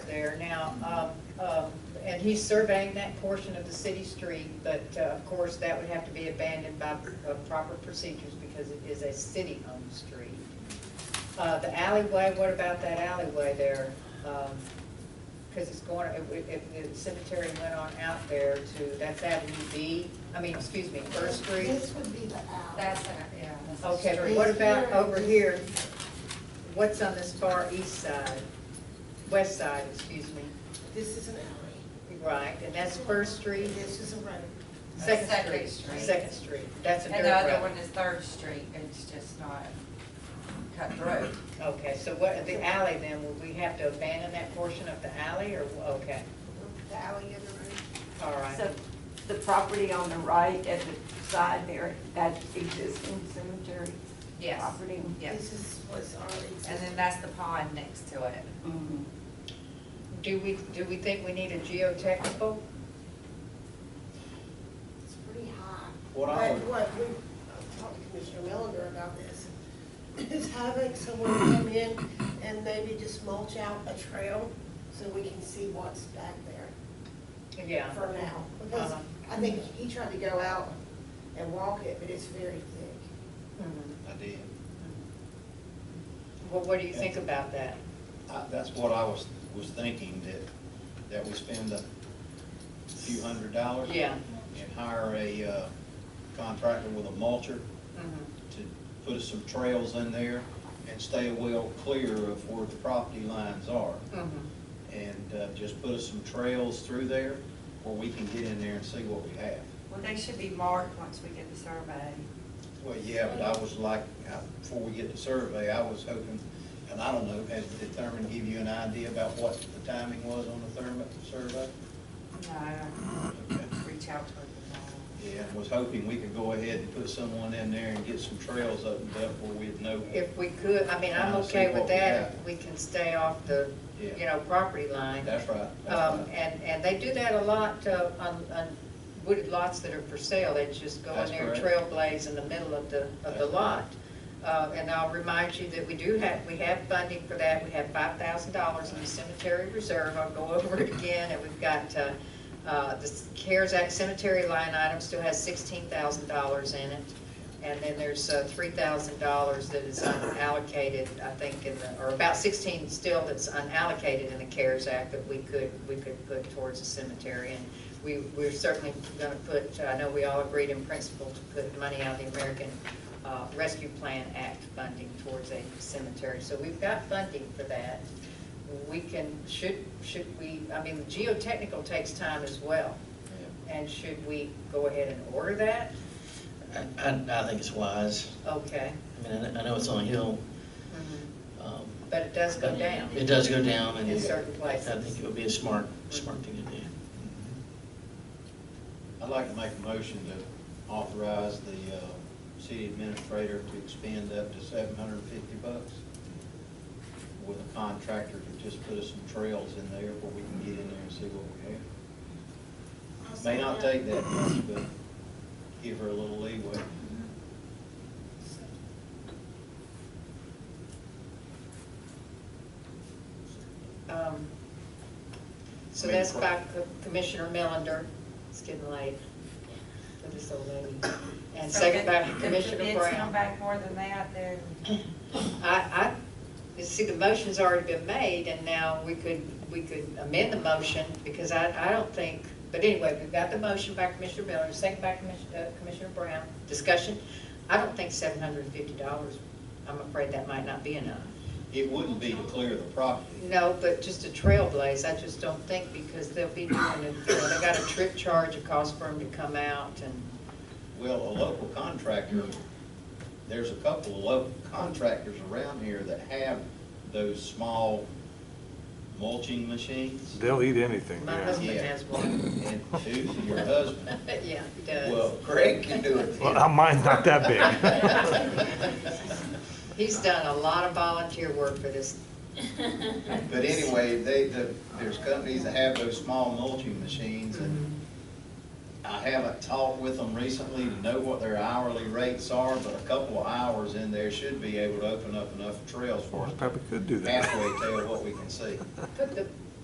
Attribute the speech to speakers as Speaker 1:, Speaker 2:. Speaker 1: there now, um, um, and he's surveying that portion of the city street, but uh, of course, that would have to be abandoned by uh, proper procedures because it is a city-owned street. Uh, The alleyway, what about that alleyway there? Because it's going, if- if if the cemetery went on out there to, that's Avenue B, I mean, excuse me, First Street.
Speaker 2: This would be the alley.
Speaker 3: That's, an- yeah. that's a
Speaker 1: Okay, but
Speaker 3: street.
Speaker 1: what about over here? What's on this far east side, west side, excuse me?
Speaker 2: This is an alley.
Speaker 1: Right, and that's First Street,
Speaker 2: This is a road.
Speaker 1: Second
Speaker 3: Second
Speaker 1: Street.
Speaker 3: Street.
Speaker 1: Second Street, that's a
Speaker 3: And the other
Speaker 1: dirt
Speaker 3: one
Speaker 1: road.
Speaker 3: is Third Street, it's just not cut through.
Speaker 1: Okay, so what, the alley then, would we have to abandon that portion of the alley or, okay,
Speaker 2: The alley of the road.
Speaker 1: all right.
Speaker 4: So the property on the right at the side there, that's existing cemetery
Speaker 3: Yes.
Speaker 4: property?
Speaker 3: Yes.
Speaker 2: This is what's already.
Speaker 3: And then that's the pond next to it.
Speaker 4: Mhm.
Speaker 1: Do we, do we think we need a geotechnical?
Speaker 2: It's pretty high.
Speaker 5: What
Speaker 2: But
Speaker 5: I would-
Speaker 2: What, we, I talked to Commissioner Melander about this, is having someone come in and maybe just mulch out a trail so we can see what's back there
Speaker 1: Yeah,
Speaker 2: for now. Because
Speaker 1: Uh-huh.
Speaker 2: I think he tried to go out and walk it, but it's very thick.
Speaker 1: Mhm.
Speaker 5: I did.
Speaker 1: well, what do you think about that?
Speaker 5: I- That's what I was, was thinking, that, that we spend a few hundred dollars.
Speaker 1: Yeah.
Speaker 5: And hire a uh, contractor with a mulcher
Speaker 1: Mhm.
Speaker 3: Mm-hmm.
Speaker 5: to put us some trails in there and stay well clear of where the property lines are.
Speaker 3: Mm-hmm.
Speaker 1: Mhm.
Speaker 5: And uh, just put us some trails through there where we can get in there and see what we have.
Speaker 3: Well, they should be marked once we get the survey.
Speaker 5: Well, yeah, but I was like, uh, before we get the survey, I was hoping, and I don't know, has the Thurman give you an idea about what the timing was on the Thurman survey?
Speaker 3: No,
Speaker 5: Okay.
Speaker 3: reach out to them.
Speaker 5: Yeah, and was hoping we could go ahead and put someone in there and get some trails opened up where we'd know.
Speaker 1: If we could, I mean, I'm
Speaker 5: Kinda see
Speaker 1: okay with
Speaker 5: what we
Speaker 1: that,
Speaker 5: have.
Speaker 1: we can stay off the, you
Speaker 5: Yeah.
Speaker 1: know, property line.
Speaker 5: That's right. that's
Speaker 1: Um,
Speaker 5: right.
Speaker 1: and, and they do that a lot, uh, on, on wooded lots that are for sale, they just go in
Speaker 5: That's
Speaker 1: there and
Speaker 5: correct.
Speaker 1: trailblaze in the middle of the, of
Speaker 5: That's
Speaker 1: the
Speaker 5: correct.
Speaker 1: lot. Uh, and I'll remind you that we do have, we have funding for that, we have five thousand dollars in the cemetery reserve, I'll go over it again, and we've got, uh, uh, the CARES Act cemetery line item still has sixteen thousand dollars in it. And then there's uh, three thousand dollars that is unallocated, I think, in the, or about sixteen still that's unallocated in the CARES Act that we could, we could put towards the cemetery. And we, we're certainly gonna put, I know we all agreed in principle to put money out of the American uh, Rescue Plan Act funding towards a cemetery. So we've got funding for that. We can, should, should we, I mean, the geotechnical takes time as well. And should we go ahead and order that?
Speaker 6: I, I I think it's wise.
Speaker 1: Okay.
Speaker 6: I mean, I kn- I know it's on a hill.
Speaker 1: Mhm.
Speaker 6: um,
Speaker 1: But it does go down.
Speaker 6: It does go down and.
Speaker 1: In certain
Speaker 6: I
Speaker 1: places.
Speaker 6: think it would be a smart, smart thing to do.
Speaker 5: I'd like to make a motion to authorize the uh, city administrator to expend up to seven hundred and fifty bucks with a contractor to just put us some trails in there where we can get in there and see what we have. May not take that much, but give her a little leeway.
Speaker 1: Um, So
Speaker 5: Main
Speaker 1: that's
Speaker 5: cour-
Speaker 1: by Co- Commissioner Melander, it's getting late for this old lady. And second by Commissioner
Speaker 3: If the bids come
Speaker 1: Brown.
Speaker 3: back more than that, then
Speaker 1: I, I, you see, the motion's already been made, and now we could, we could amend the motion, because I, I don't think, but anyway, we've got the motion by Commissioner Miller, second by Commis- uh, Commissioner Brown, discussion. I don't think seven hundred and fifty dollars, I'm afraid that might not be enough.
Speaker 5: It wouldn't be to clear the property.
Speaker 1: No, but just a trailblaze, I just don't think, because they'll be doing it, you know, they got a trip charge, a cost for them to come out, and,
Speaker 5: Well, a local contractor, there's a couple of local contractors around here that have those small mulching machines.
Speaker 7: They'll eat anything,
Speaker 1: My
Speaker 7: yeah.
Speaker 1: husband- has one.
Speaker 5: And who's your husband?
Speaker 1: yeah, he does.
Speaker 5: Well, Craig can do it.
Speaker 7: Well, mine's not that big.
Speaker 1: He's done a lot of volunteer work for this,
Speaker 5: But anyway, they, the, there's companies that have those small mulching machines and I haven't talked with them recently to know what their hourly rates are, but a couple of hours in there should be able to open up enough trails for
Speaker 7: Well, I
Speaker 5: us.
Speaker 7: Probably could do that.
Speaker 5: Halfway tell what we can see.
Speaker 1: put the,